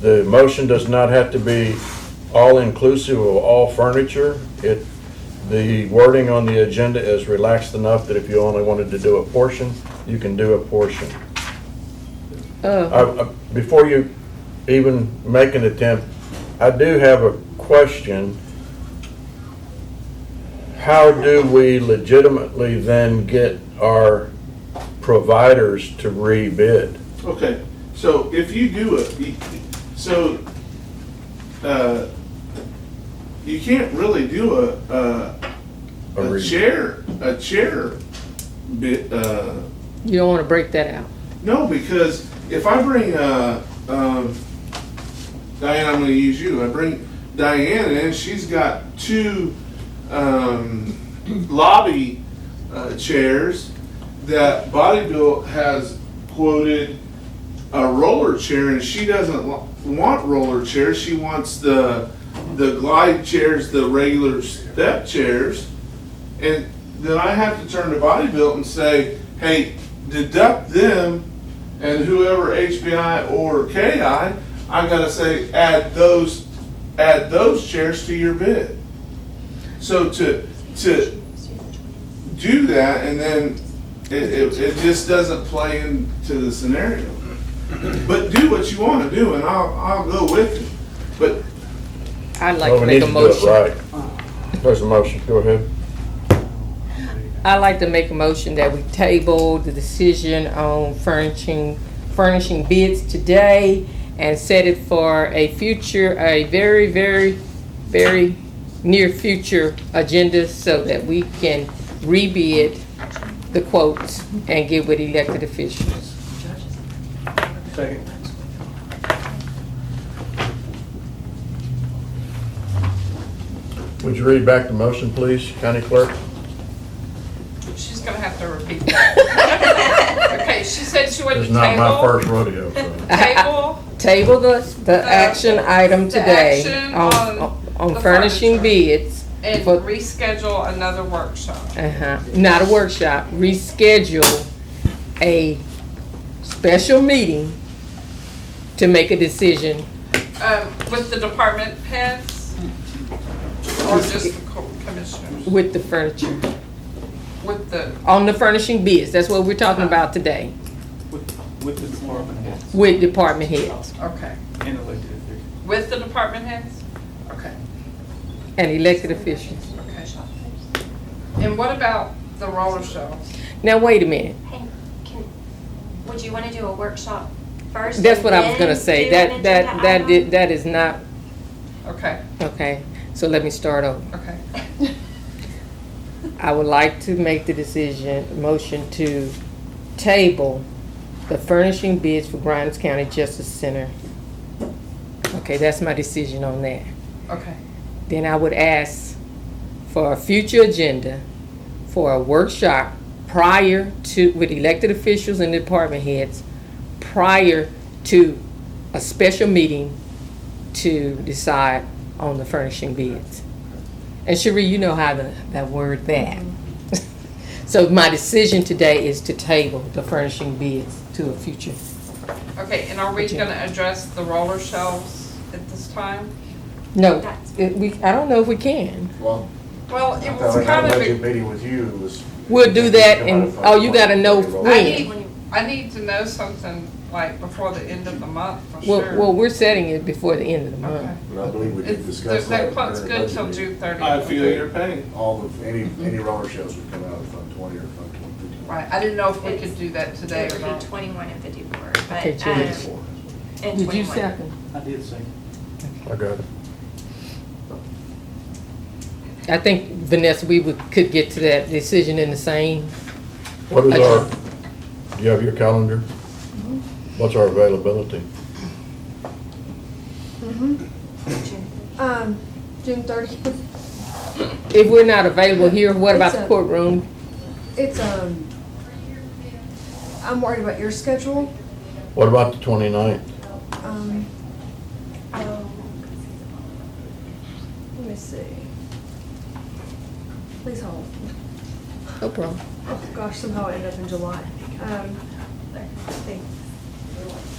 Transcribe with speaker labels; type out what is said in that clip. Speaker 1: The motion does not have to be all-inclusive of all furniture. It, the wording on the agenda is relaxed enough that if you only wanted to do a portion, you can do a portion.
Speaker 2: Oh,
Speaker 1: I- I- Before you even make an attempt, I do have a question. How do we legitimately then get our providers to rebid?
Speaker 3: Okay, so if you do it, so, uh, you can't really do a, a,
Speaker 1: A
Speaker 3: a
Speaker 1: re-
Speaker 3: chair, a chair bit, uh,
Speaker 2: you don't want to break that out.
Speaker 3: no, because if I bring, uh, um, Diane, I'm gonna use you, I bring Diane in, she's got two, um, lobby, uh, chairs that Bodybuild has quoted a roller chair, and she doesn't lo- want roller chairs. She wants the the glide chairs, the regular step chairs, and then I have to turn to Bodybuilt and say, "Hey, deduct them, and whoever HBI or KI, I gotta say add those add those chairs to your bid." So to to do that, and then it, it, it just doesn't play into the scenario. But do what you want to do, and I'll, I'll go with you. But
Speaker 2: I'd like
Speaker 1: Well, we
Speaker 2: to make
Speaker 1: need
Speaker 2: a
Speaker 1: to do it
Speaker 2: motion. Uh-huh.
Speaker 1: right. There's a motion, go ahead.
Speaker 2: I'd like to make a motion that we table the decision on furnishing, furnishing bids today and set it for a future, a very, very, very near future agenda so that we can rebid the quotes and get with elected officials.
Speaker 4: Second.
Speaker 1: Would you read back the motion, please, County Clerk?
Speaker 5: She's gonna have to repeat that. Okay, she said she went
Speaker 1: This
Speaker 5: to
Speaker 1: is not my
Speaker 5: table,
Speaker 1: first rodeo, so.
Speaker 5: table,
Speaker 2: Table the, the action item today
Speaker 5: action on
Speaker 2: on, on
Speaker 5: the
Speaker 2: furnishing
Speaker 5: furniture.
Speaker 2: bids.
Speaker 5: and
Speaker 2: for-
Speaker 5: reschedule another workshop.
Speaker 2: Uh-huh, not a workshop, reschedule a special meeting to make a decision.
Speaker 5: Um, with the department heads? Or just the co- commissioners?
Speaker 2: with the furniture,
Speaker 5: With the,
Speaker 2: on the furnishing bids, that's what we're talking about today,
Speaker 4: With, with the department heads
Speaker 2: with department heads
Speaker 5: okay,
Speaker 4: and elected officials.
Speaker 5: with the department heads? Okay,
Speaker 2: and elected officials.
Speaker 5: okay. And what about the roller shelves?
Speaker 2: Now, wait a minute,
Speaker 6: Hey, can, would you wanna do a workshop first?
Speaker 2: that's
Speaker 6: and
Speaker 2: what I was
Speaker 6: then
Speaker 2: gonna say,
Speaker 6: do
Speaker 2: that,
Speaker 6: an
Speaker 2: that,
Speaker 6: agenda
Speaker 2: that,
Speaker 6: item?
Speaker 2: did- that is not,
Speaker 5: Okay,
Speaker 2: okay, so let me start over.
Speaker 5: okay.
Speaker 2: I would like to make the decision, motion to table the furnishing bids for Grimes County Justice Center. Okay, that's my decision on that.
Speaker 5: Okay,
Speaker 2: Then I would ask for a future agenda for a workshop prior to, with elected officials and department heads, prior to a special meeting to decide on the furnishing bids. And Cherie, you know how the, that word that. So my decision today is to table the furnishing bids to a future.
Speaker 5: okay, and are we
Speaker 2: Agenda.
Speaker 5: gonna address the roller shelves at this time?
Speaker 2: No, it- we, I don't know if we can.
Speaker 7: Well,
Speaker 5: Well, it
Speaker 7: I
Speaker 5: was
Speaker 7: thought
Speaker 5: kind
Speaker 7: our
Speaker 5: of.
Speaker 7: budget meeting with you was.
Speaker 2: We'll do that and, oh, you gotta know
Speaker 5: I
Speaker 2: when.
Speaker 5: need, I need to know something like before the end of the month for
Speaker 2: Well,
Speaker 5: sure.
Speaker 2: well, we're setting it before the end of the
Speaker 5: Okay.
Speaker 2: month.
Speaker 7: And I believe we did
Speaker 5: It's-
Speaker 7: discuss that.
Speaker 5: That that quote's
Speaker 7: during
Speaker 5: good till
Speaker 7: budget meeting.
Speaker 5: June
Speaker 3: I
Speaker 5: thirtieth.
Speaker 3: feel your pain.
Speaker 7: All of, any, any roller shows would come out of Fund Twenty or Fund Twenty-two.
Speaker 5: Right, I didn't know if we could do that today
Speaker 6: It
Speaker 5: or
Speaker 6: would be
Speaker 5: not.
Speaker 6: twenty-one and fifty-four,
Speaker 2: Okay,
Speaker 6: but, um,
Speaker 2: Julie.
Speaker 6: and
Speaker 2: Did you
Speaker 6: twenty-one.
Speaker 2: second?
Speaker 4: I did second.
Speaker 1: I got it.
Speaker 2: I think, Vanessa, we would, could get to that decision in the same,
Speaker 1: What is our, do you have your calendar?
Speaker 5: Mm-hmm.
Speaker 1: What's our availability?
Speaker 8: Mm-hmm. Um, June thirtieth.
Speaker 2: if we're not available here, what about the
Speaker 8: It's a-
Speaker 2: courtroom?
Speaker 8: It's um. I'm worried about your schedule.
Speaker 1: What about the 29th?
Speaker 8: Um. um, Let me see. Please hold.
Speaker 2: No problem.
Speaker 8: Oh gosh, somehow I ended up in July. Um, thanks.